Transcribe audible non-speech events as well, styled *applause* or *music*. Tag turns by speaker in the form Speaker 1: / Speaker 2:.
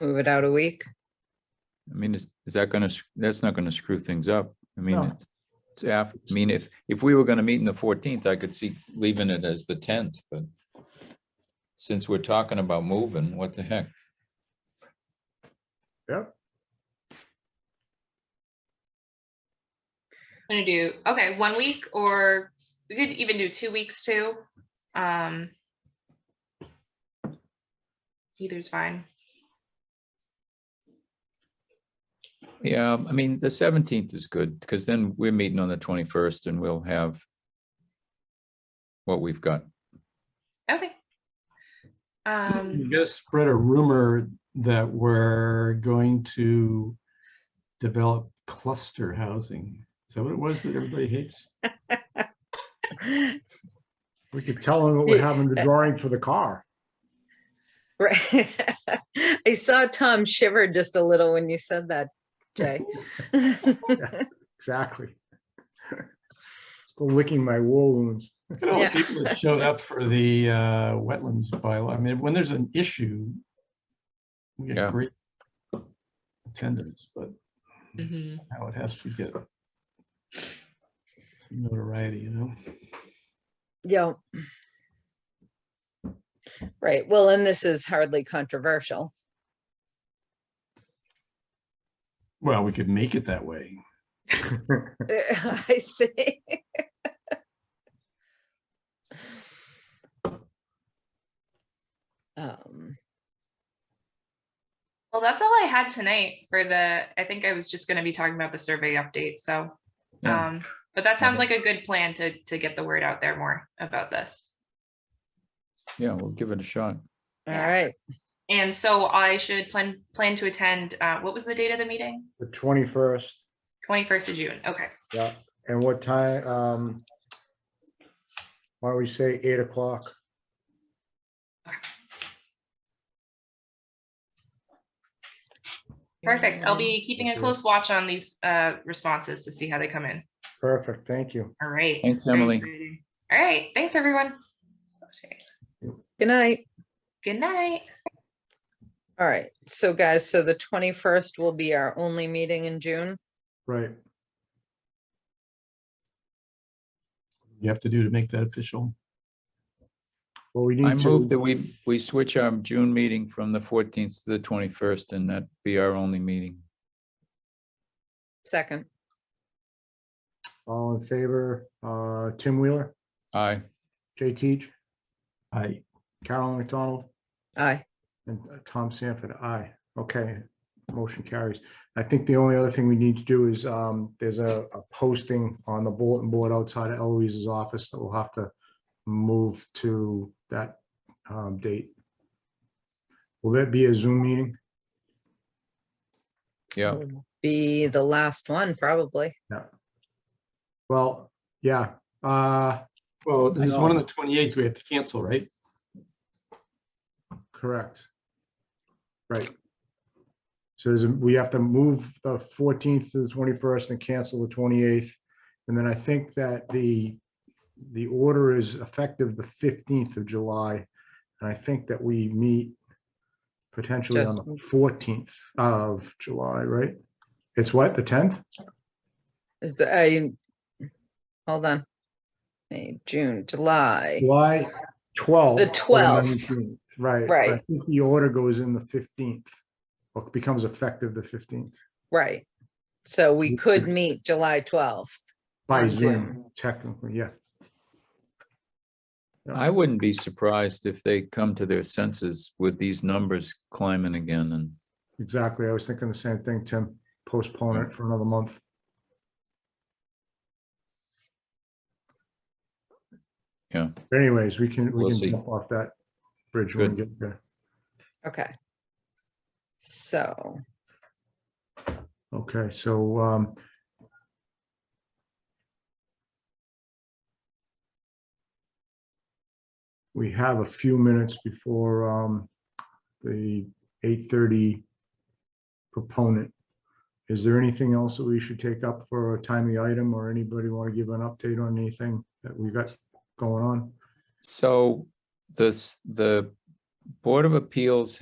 Speaker 1: Move it out a week. *laughs*
Speaker 2: I mean, is, is that gonna, s- that's not gonna screw things up. I mean,
Speaker 3: No.
Speaker 2: it's- it's, af- I mean, if, if we were gonna meet in the fourteenth, I could see leaving it as the tenth, but since we're talking about moving, what the heck?
Speaker 4: gonna do, okay, one week or we could even do two weeks too. Um. Either's fine.
Speaker 2: Yeah, I mean, the seventeenth is good, because then we're meeting on the twenty-first and we'll have what we've got.
Speaker 4: Okay.
Speaker 3: You
Speaker 4: Um,
Speaker 3: just spread a rumor that we're going to develop cluster housing. Is that what it was that everybody hates?
Speaker 5: We could tell them what we have in the
Speaker 1: Yeah.
Speaker 5: drawing for the car.
Speaker 1: Right. *laughs* I saw Tom shiver just a little when you said that, Jay.
Speaker 5: Exactly. *laughs* Still licking my wool wounds.
Speaker 3: Look at all the
Speaker 1: Yeah.
Speaker 3: people that showed up for the uh, wetlands bylaw. I mean, when there's an issue, we
Speaker 2: Yeah.
Speaker 3: get great attendance, but
Speaker 4: mhm.
Speaker 3: now it has to get some notoriety, you know?
Speaker 1: *laughs* Yeah. Right. Well, and this is hardly controversial. *laughs*
Speaker 3: Well, we could make it that way.
Speaker 1: I see. *laughs* Um,
Speaker 4: Well, that's all I had tonight for the, I think I was just gonna be talking about the survey update, so.
Speaker 2: Yeah.
Speaker 4: Um, but that sounds like a good plan to, to get the word out there more about this.
Speaker 2: Yeah, we'll give it a shot.
Speaker 1: All
Speaker 4: Yeah.
Speaker 1: right.
Speaker 4: And so I should plan, plan to attend, uh, what was the date of the meeting?
Speaker 5: The twenty-first,
Speaker 4: Twenty-first of June, okay.
Speaker 5: yeah. And what time, um, why don't we say eight o'clock?
Speaker 4: Perfect. I'll
Speaker 1: Yeah.
Speaker 4: be keeping a
Speaker 5: Okay.
Speaker 4: close watch on these uh, responses to see how they come in.
Speaker 5: Perfect, thank you.
Speaker 4: All right.
Speaker 2: Thanks,
Speaker 4: Very
Speaker 2: Emily.
Speaker 4: exciting. All right. Thanks, everyone. Okay.
Speaker 1: Good night.
Speaker 4: Good night.
Speaker 1: All right. So guys, so the 21st will be our only meeting in June.
Speaker 5: Right,
Speaker 3: You have to do to make that official.
Speaker 5: well, we
Speaker 2: I
Speaker 5: need
Speaker 2: move that
Speaker 5: to,
Speaker 2: we, we switch our June meeting from the fourteenth to the twenty-first and that be our only meeting.
Speaker 1: Second.
Speaker 5: all in favor, uh, Tim Wheeler,
Speaker 2: Aye.
Speaker 5: Jay Teach,
Speaker 3: I,
Speaker 5: Carolyn McDonald,
Speaker 1: Aye.
Speaker 5: and uh, Tom Sanford, aye. Okay, motion carries. I think the only other thing we need to do is, um, there's a, a posting on the bulletin board outside of Eloise's office that we'll have to move to that, um, date. Will that be a Zoom meeting?
Speaker 2: Yeah,
Speaker 1: Will Be the last one, probably.
Speaker 5: Well, yeah, uh,
Speaker 3: well, there's one on
Speaker 5: No.
Speaker 3: the 28th we have to cancel, right?
Speaker 5: correct. Right. So there's, a- we have to move the fourteenth to the twenty-first and cancel the twenty-eighth. And then I think that the, the order is effective the fifteenth of July. And I think that we meet potentially on the fourteenth of July, right? It's what, the tenth?
Speaker 1: Is the, I, hold on. May, June, July.
Speaker 5: July twelfth.
Speaker 1: The 12th.
Speaker 5: Right. but I
Speaker 1: Right.
Speaker 5: think The order goes in the fifteenth, or becomes effective the fifteenth.
Speaker 1: Right. So we could
Speaker 5: Okay.
Speaker 1: meet July 12th.
Speaker 5: By
Speaker 1: On
Speaker 5: Zoom,
Speaker 1: Zoom.
Speaker 5: technically, yeah.
Speaker 2: I wouldn't be surprised if they come to their senses with these numbers climbing again and
Speaker 5: Exactly. I was thinking the same thing, Tim. Postpone it for another month.
Speaker 2: Yeah.
Speaker 5: But Anyways, we can,
Speaker 2: We'll
Speaker 5: we
Speaker 2: see.
Speaker 5: can jump off that bridge when we get there.
Speaker 1: Okay. So,
Speaker 5: Okay, so, um, we have a few minutes before, um, the eight thirty proponent. Is there anything else that we should take up for a timely item or anybody want to give an update on anything that we got going on?
Speaker 2: So this, the Board of Appeals